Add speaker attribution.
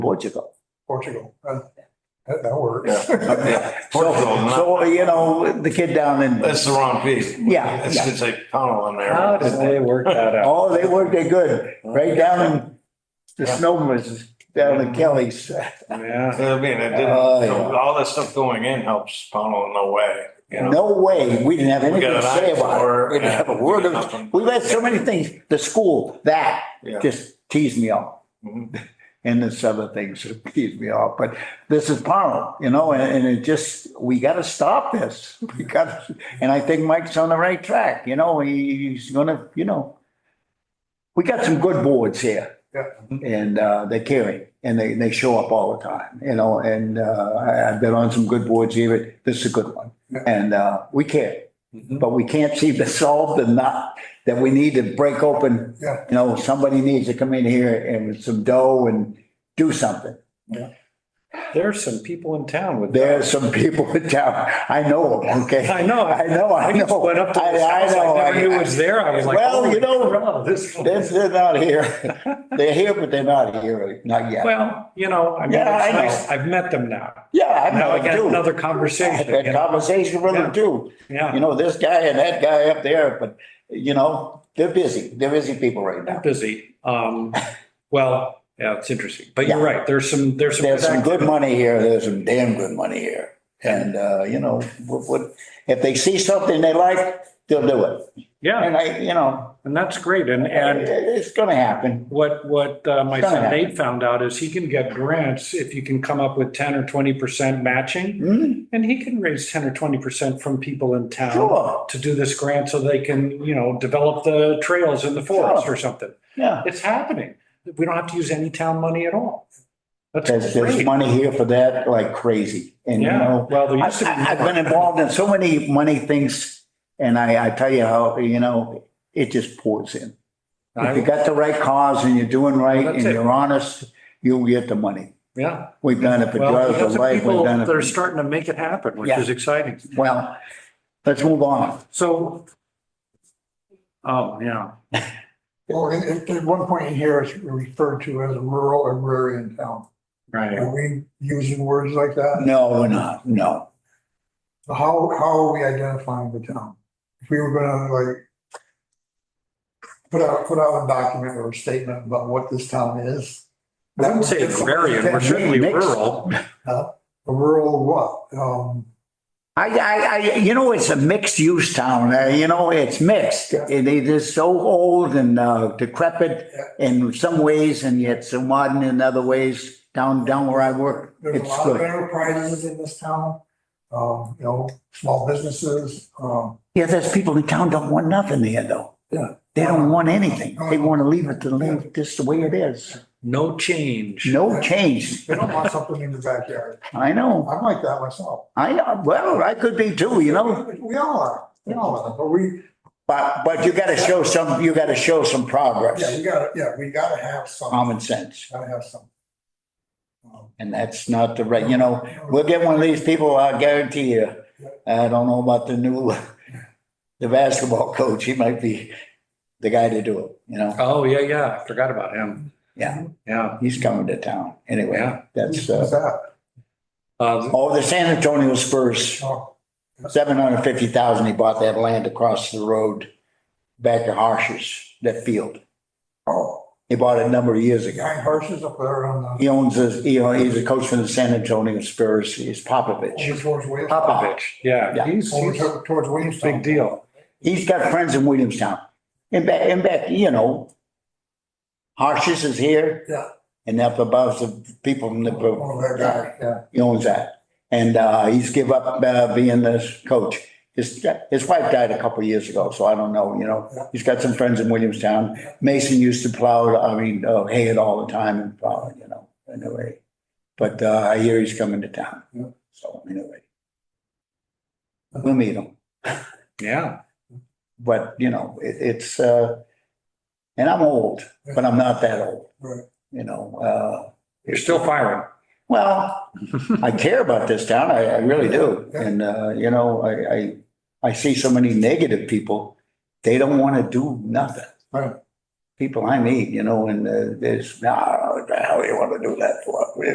Speaker 1: Portugal.
Speaker 2: Portugal. Uh, That, that works.
Speaker 3: Yeah. Portugal, not-
Speaker 1: So, you know, the kid down in,
Speaker 3: That's the wrong piece.
Speaker 1: Yeah,
Speaker 3: It's
Speaker 1: yeah.
Speaker 3: just a tunnel in there.
Speaker 4: How did they work that out?
Speaker 1: oh, they worked it good, right down in, the snow was down in Kelly's.
Speaker 4: Yeah.
Speaker 3: uh, I mean, it didn't,
Speaker 1: Oh, yeah.
Speaker 3: all that stuff going in helps tunnel in no way, you know?
Speaker 1: No way, we didn't have
Speaker 3: We
Speaker 1: anything
Speaker 3: got
Speaker 1: to
Speaker 3: an
Speaker 1: say
Speaker 3: eye for
Speaker 1: about it.
Speaker 3: it.
Speaker 1: We didn't have a word of,
Speaker 3: Nothing.
Speaker 1: we've had so many things, the school, that
Speaker 3: Yeah.
Speaker 1: just teased me off.
Speaker 2: Mm-hmm.
Speaker 3: Mhm.
Speaker 1: And this other thing should tease me off, but this is Powell, you know, and, and it just, we gotta stop this. We gotta, and I think Mike's on the right track, you know, he- he's gonna, you know. We got some good boards here.
Speaker 2: Yeah.
Speaker 1: And, uh, they carry and they, they show up all the time, you know, and, uh, I, I've been on some good boards here, but this is a good one.
Speaker 2: Yeah.
Speaker 1: And, uh, we care,
Speaker 4: Mm-hmm.
Speaker 1: but we can't seem to solve the knot that we need to break open
Speaker 2: Yeah,
Speaker 1: you know, somebody needs to come in here and with some dough and do something.
Speaker 4: There's some people in town with.
Speaker 1: There's some people in town, I know them, okay?
Speaker 4: I know.
Speaker 1: I know, I
Speaker 4: I just
Speaker 1: know.
Speaker 4: went up to
Speaker 1: I-
Speaker 4: this
Speaker 1: I
Speaker 4: house.
Speaker 1: know,
Speaker 4: I never
Speaker 1: I-
Speaker 4: knew it was there. I was like.
Speaker 1: Well, you
Speaker 4: holy
Speaker 1: know,
Speaker 4: crap, this-
Speaker 1: They're, they're not here. They're here, but they're not here, not yet.
Speaker 4: Well, you know, I mean,
Speaker 1: Yeah, I
Speaker 4: it's
Speaker 1: know.
Speaker 4: nice. I've met them now.
Speaker 1: Yeah, I
Speaker 4: Now I
Speaker 1: know,
Speaker 4: got
Speaker 1: too.
Speaker 4: another
Speaker 1: I
Speaker 4: conversation.
Speaker 1: had
Speaker 4: you
Speaker 1: a
Speaker 4: know?
Speaker 1: conversation with them
Speaker 4: Yeah.
Speaker 1: too. You
Speaker 4: Yeah,
Speaker 1: know, this guy and that guy up there, but, you know, they're busy. They're busy people right
Speaker 4: I'm
Speaker 1: now.
Speaker 4: busy. Um, well, yeah, it's interesting, but you're
Speaker 1: Yeah.
Speaker 4: right. There's some, there's some.
Speaker 1: There's some good money here. There's some damn good money here. And, uh, you know, what, what, if they see something they like, they'll do it.
Speaker 4: Yeah,
Speaker 1: And I, you know,
Speaker 4: and that's great. And, and
Speaker 1: it's gonna happen.
Speaker 4: What, what uh, my
Speaker 1: Gonna
Speaker 4: son
Speaker 1: happen.
Speaker 4: Nate found out is he can get grants if you can come up with ten or twenty percent matching.
Speaker 1: Hmm,
Speaker 4: And he can raise ten or twenty percent from people in town
Speaker 1: Sure,
Speaker 4: to do this grant so they can, you know, develop the trails in the forest
Speaker 1: Oh.
Speaker 4: or something.
Speaker 1: yeah.
Speaker 4: It's happening. We don't have to use any town money at all. That's
Speaker 1: There's, there's
Speaker 4: great.
Speaker 1: money here for that like crazy. And you
Speaker 4: Yeah,
Speaker 1: know,
Speaker 4: well, there
Speaker 1: I,
Speaker 4: used to be.
Speaker 1: have been involved in so many money things. And I, I tell you how, you know, it just pours in. If you
Speaker 4: I-
Speaker 1: got the right cause and you're doing right and
Speaker 4: That's it.
Speaker 1: you're honest, you'll get the money.
Speaker 4: Yeah.
Speaker 1: We've done it for
Speaker 4: Well,
Speaker 1: drugs
Speaker 4: we got
Speaker 1: and
Speaker 4: some
Speaker 1: life. We've
Speaker 4: people
Speaker 1: done it.
Speaker 4: that are
Speaker 1: for-
Speaker 4: starting to make it happen, which
Speaker 1: Yeah.
Speaker 4: is exciting.
Speaker 1: Well, let's move on.
Speaker 4: So. Oh, yeah.
Speaker 2: well, at- at, at one point in here, it's referred to as a rural agrarian town.
Speaker 4: Right.
Speaker 2: Are we using words like that?
Speaker 1: No, we're not. No.
Speaker 2: How, how are we identifying the town? If we were gonna like put out, put out a document or a statement about what this town is.
Speaker 4: I wouldn't say agrarian, we're certainly
Speaker 1: Mixed.
Speaker 4: rural.
Speaker 2: A rural what? Um,
Speaker 1: I, I, I, you know, it's a mixed use town, uh, you know, it's mixed.
Speaker 2: Yeah.
Speaker 1: It, it is so old and uh, decrepit in some ways and yet so modern in other ways down, down where I work.
Speaker 2: There's a
Speaker 1: It's
Speaker 2: lot of
Speaker 1: good.
Speaker 2: enterprises in this town, um, you know, small businesses, um,
Speaker 1: Yeah, there's people in town don't want nothing there though.
Speaker 2: Yeah.
Speaker 1: They don't want anything. They want to leave it to live just the way it is.
Speaker 4: No change.
Speaker 1: No change.
Speaker 2: they don't want something in the backyard.
Speaker 1: I know,
Speaker 2: I'm like that myself.
Speaker 1: I know. Well, I could be too, Oh, you know,
Speaker 2: We all are, we all are, but we,
Speaker 1: but, but you gotta show some, you gotta show some
Speaker 2: yeah, we
Speaker 1: progress,
Speaker 2: gotta, yeah, we gotta have some,
Speaker 1: common sense.
Speaker 2: gotta have some. Um,
Speaker 1: And that's not the right, you know, We'll get one of these people, I guarantee you. I don't know about the new, the basketball coach. He might be the guy to do it, you know?
Speaker 4: Oh, yeah, yeah. I forgot about him.
Speaker 1: Yeah.
Speaker 4: Yeah.
Speaker 1: He's coming to town. Anyway,
Speaker 4: Yeah.
Speaker 1: that's,
Speaker 2: Who's
Speaker 1: uh,
Speaker 2: that?
Speaker 4: Uh,
Speaker 1: oh, the San Antonio Spurs,
Speaker 2: Oh,
Speaker 1: seven hundred fifty thousand. He bought that land across the road back to Harshes, that field.
Speaker 2: oh,
Speaker 1: He bought it a number of years ago.
Speaker 2: behind horses up there on the,
Speaker 1: He owns, his- you know, he's a coach for the San Antonio Spurs. He's Popovich.
Speaker 2: over towards Williams.
Speaker 1: Popovich.
Speaker 4: yeah,
Speaker 1: Yeah.
Speaker 4: he's,
Speaker 2: Over
Speaker 4: he's a
Speaker 2: to- towards Williamstown.
Speaker 4: big deal.
Speaker 1: He's got friends in Williamstown. And back, and back, you know, Harshes is here.
Speaker 2: Yeah.
Speaker 1: And up above the people from the,
Speaker 2: Over there, yeah.
Speaker 1: he owns that. And, uh, he's give up, uh, being this coach. His, his wife died a couple of years ago, so I don't know, you
Speaker 2: Yeah.
Speaker 1: know. He's got some friends in Williamstown. Mason used to plow, I mean, uh, hay it all the time and plow it, you know, anyway. But, uh, I hear he's coming to town,
Speaker 2: Yeah.
Speaker 1: so anyway. We'll meet him.
Speaker 4: Yeah.
Speaker 1: but you know, it, it's, uh, and I'm old, but I'm not that old,
Speaker 2: Right.
Speaker 1: you know, uh,
Speaker 4: You're still firing.
Speaker 1: well, I care about this town. I, I really do. And, uh, you know, I, I, I see so many negative people. They don't want to do nothing.
Speaker 2: Right.
Speaker 1: People I meet, you know, and uh, there's, nah, what the hell hell you want to do that for?